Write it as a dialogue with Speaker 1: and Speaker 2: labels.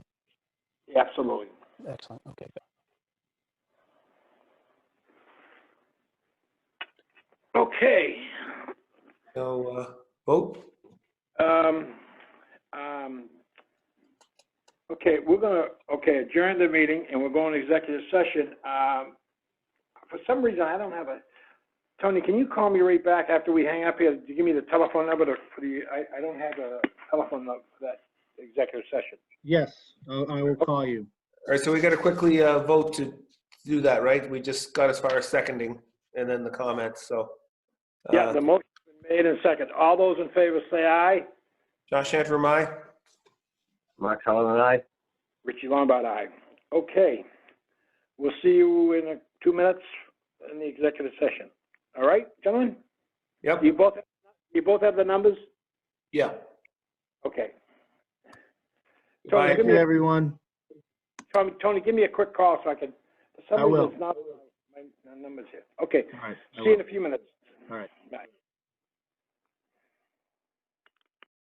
Speaker 1: Absolutely.
Speaker 2: Excellent, okay.
Speaker 1: Okay.
Speaker 3: So, uh, vote?
Speaker 1: Um, um, Okay, we're gonna, okay, adjourn the meeting and we're going to executive session. Um, For some reason, I don't have a, Tony, can you call me right back after we hang up here? Do you Give me the telephone number to, for the, I, I don't have a telephone number for that executive session.
Speaker 4: Yes, I I will call you.
Speaker 3: All right, so we got to quickly uh, vote to do that, right? We just got as far as seconding and then the comments, so. uh,
Speaker 1: Yeah, the motion's been made and second. All those in favor say aye.
Speaker 3: Josh Antrim, aye?
Speaker 5: Mark Sullivan and I.
Speaker 1: Richie Lombard, aye. Okay. We'll see you in uh, two minutes in the executive session. All right, gentlemen?
Speaker 3: Yep,
Speaker 1: You both, you both have the numbers?
Speaker 3: yeah.
Speaker 1: Okay. Tony,
Speaker 3: Bye.
Speaker 1: give
Speaker 4: Thank
Speaker 1: me,
Speaker 4: you,
Speaker 1: a-
Speaker 4: everyone.
Speaker 1: Tony, Tony, give me a quick call so I can, for
Speaker 4: I
Speaker 1: some reason,
Speaker 4: will.
Speaker 1: it's not, my my number's here. Okay,
Speaker 4: All right, I
Speaker 1: see you
Speaker 4: will.
Speaker 1: in a few minutes.
Speaker 4: All right.
Speaker 1: Bye.